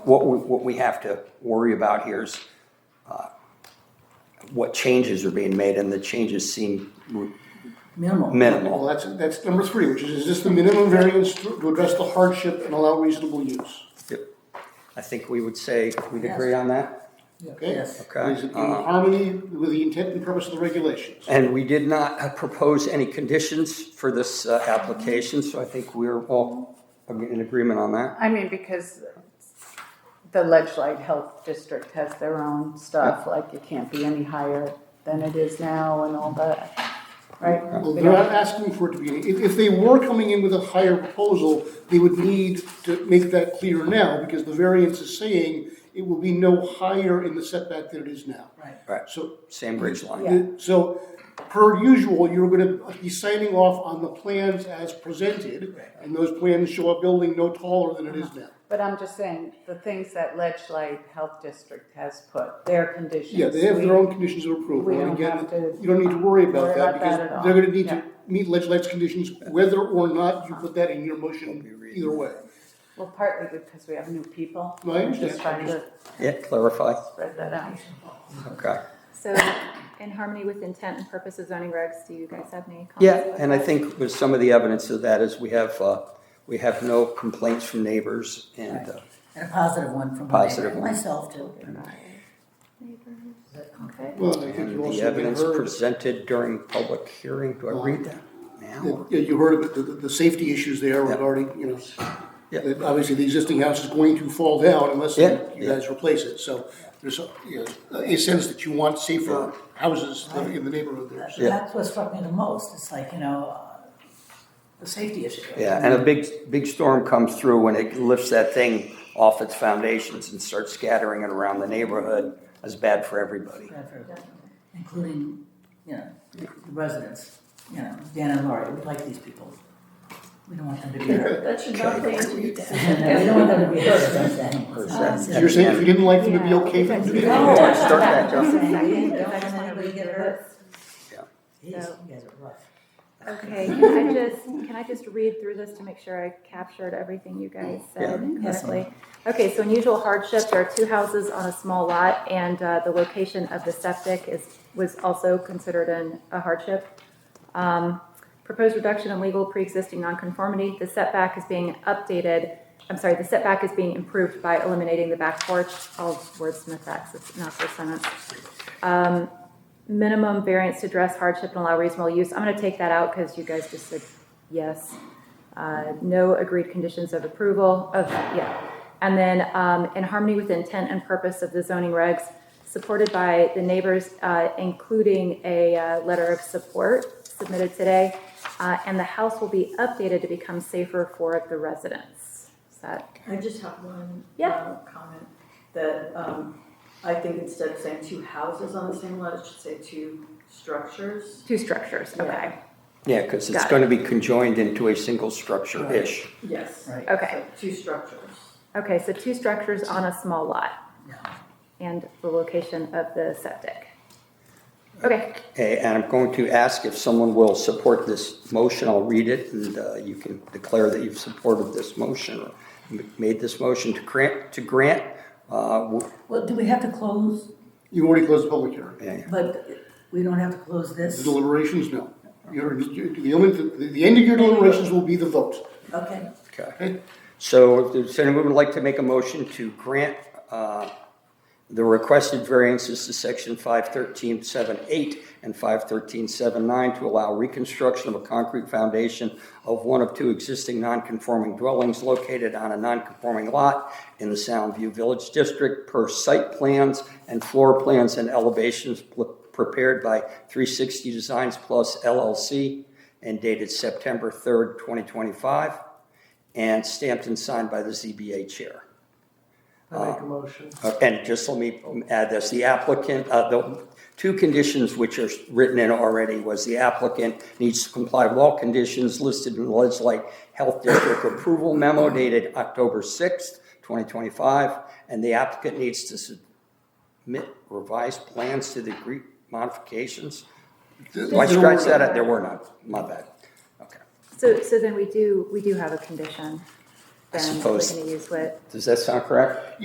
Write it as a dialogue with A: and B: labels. A: What we, what we have to worry about here is uh, what changes are being made, and the changes seem
B: Minimal.
A: minimal.
C: Well, that's, that's number three, which is, is this the minimum variance to to address the hardship and allow reasonable use?
A: I think we would say, we'd agree
B: Yes.
A: on that?
C: Okay?
B: Yes.
A: Okay. Uh,
C: Is it in harmony with the intent and purpose of the regulations?
A: And we did not uh, propose any conditions for this uh, application, so I think we're all in agreement on that.
D: I mean, because the Ledgelight Health District has their own stuff, like it can't be any higher than it is now and all that, right?
C: Well,
D: We
C: They're not
D: don't-
C: asking for it to be, any- if, if they were coming in with a higher proposal, they would need to make that clear now, because the variance is saying it will be no higher in the setback than it is now.
B: Right.
A: Right,
C: So
A: same ridge
B: Yeah.
A: line.
C: The- So, per usual, you're gonna be signing off on the plans as presented, and those plans show a building no taller than it is
B: Uh-huh.
C: now.
D: But I'm just saying, the things that Ledgelight Health District has put, their conditions.
C: Yeah, they have
D: we-
C: their own conditions of approval,
D: we
C: and
D: don't
C: again,
D: have to
C: you don't need to worry about
D: worry
C: that,
D: about that at
C: because
D: all.
C: they're gonna need
D: Yeah.
C: to meet legislative conditions, whether or not you put that in your motion, either way.
D: Well, partly because we have new people.
C: No, I
D: We're Just
C: understand.
D: trying to
A: Yeah, clarify,
D: spread that out.
A: okay.
E: So in harmony with intent and purpose of zoning regs, do you guys have any comments?
A: Yeah, and I think with some of the evidence of that is we have, uh, we have no complaints from neighbors, and uh,
B: And a positive one from
A: Positive
B: my-
A: one.
B: myself too.
E: Okay.
C: Well, I think you
A: and the
C: also may have
A: evidence
C: heard,
A: presented during public hearing, do I read that now? or-
C: yeah, you heard about the, the, the safety issues there regarding, you know,
A: Yeah.
C: that obviously the existing house is going to fall down unless
A: Yeah,
C: you
A: yeah.
C: guys replace it, so there's a, you know, uh, a sense that you want safer houses living in the neighborhood there. so.
B: That's what struck me the most. It's like, you know, uh, the safety issue.
A: Yeah, and a big, big storm comes through and it lifts that thing off its foundations and starts scattering it around the neighborhood. That's bad for everybody.
B: Bad for everyone, Including, you know, the residents, you know, Dan and Laurie, we like these people. We don't want them to be hurt.
F: That should not be.
B: We don't want them to be hurt, is what I'm saying.
C: So you're saying if you didn't like them, it'd be
E: Yeah. Oh,
C: okay for them to be?
B: No.
A: Yeah, start that,
B: Don't
A: Jeff.
B: want
E: That's one of
B: anybody to
E: the
B: get hurt.
E: list.
B: Jeez, you guys are rough.
E: Okay, can I just, can I just read through this to make sure I captured everything you guys said
B: Yes,
E: correctly? Okay, so unusual hardship, there are two houses on a small lot, and uh, the location of the septic is, was also considered an, a hardship. Um, Proposed reduction in legal pre-existing nonconformity, the setback is being updated, I'm sorry, the setback is being improved by eliminating the back porch, I'll wordsmith that, 'cause it's not this sentence minimum variance to address hardship and allow reasonable use. I'm gonna take that out because you guys just said yes. Uh, no agreed conditions of approval of, yeah. And then, um, in harmony with intent and purpose of the zoning regs, supported by the neighbors, uh, including a, uh, letter of support submitted today. Uh, and the house will be updated to become safer for the residents. Is that,
F: I just have one.
E: Yeah.
F: uh, Comment that, um, I think instead of saying two houses on the same lot, it should say two structures.
E: two structures, okay,
A: Yeah, because it's
E: Got it.
A: going to be conjoined into a single structure-ish.
F: Yes.
B: Right.
E: okay.
F: So Two structures.
E: Okay, so two structures on a small lot.
B: Yeah.
E: and the location of the septic. Okay,
A: Okay, And I'm going to ask if someone will support this motion. I'll read it and uh, you can declare that you've supported this motion or m- made this motion to grant, to grant. uh, w-
B: Well, do we have to close,
C: You already closed the public hearing.
A: yeah,
B: but we don't have to close
C: The
B: this?
C: deliberations, no. You're, you- the only, the, the end of your deliberations will be the vote.
B: Okay.
A: Okay. So if there's anyone would like to make a motion to grant uh, the requested variances to section 513.78 and 513.79 to allow reconstruction of a concrete foundation of one of two existing nonconforming dwellings located on a nonconforming lot in the Soundview Village District per site plans and floor plans and elevations pl- prepared by 360 Designs Plus LLC and dated September 3rd, 2025, and stamped and signed by the ZBA Chair.
C: I make a motion.
A: Uh, And just let me add this, the applicant, uh, the two conditions which are written in already was the applicant needs to comply with all conditions listed in the Ledgely Health District approval memo dated October sixth, twenty twenty-five, and the applicant needs to submit revised plans to the agreed modifications. Do I scratch that out? There were none, my bad. Okay.
E: so, so then we do, we do have a condition then that
A: suppose-
E: we're gonna use with
A: Does that sound correct?